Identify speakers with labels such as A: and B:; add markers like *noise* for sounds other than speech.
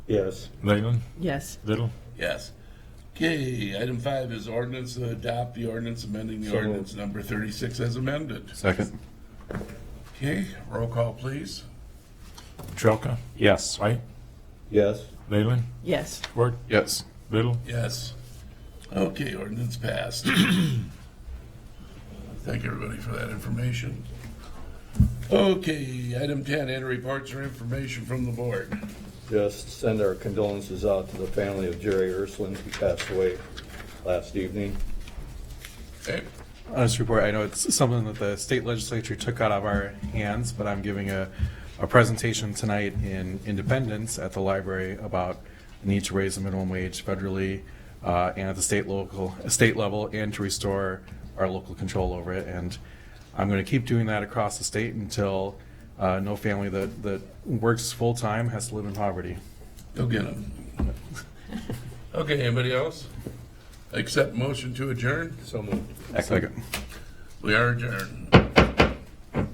A: Yes.
B: Leyland,
C: Yes.
B: Little,
D: Yes. Okay, item five is ordinance to adopt the ordinance amending the
A: So moved.
D: ordinance number thirty-six as amended.
E: Second.
D: Okay, roll call, please.
B: Petrelka,
E: Yes.
B: White,
A: Yes.
B: Leyland,
C: Yes.
B: Swart,
E: Yes.
B: Little,
D: Yes. Okay, ordinance
A: *coughs*
D: passed. Thank everybody for that information. Okay, item ten, enter reports or information from the board.
A: Just send our condolences out to the family of Jerry Ursulines who passed away last evening.
D: Okay,
E: On this report, I know it's something that the state legislature took out of our hands, but I'm giving a, a presentation tonight in Independence at the library about the need to raise the minimum wage federally uh, and at the state local, state level, and to restore our local control over it. And I'm going to keep doing that across the state until uh, no family that, that works full-time has to live in poverty.
D: go
A: *laughs*
D: get them. Okay, anybody else? Accept motion to adjourn?
A: So moved.
E: Second.
D: We are adjourned.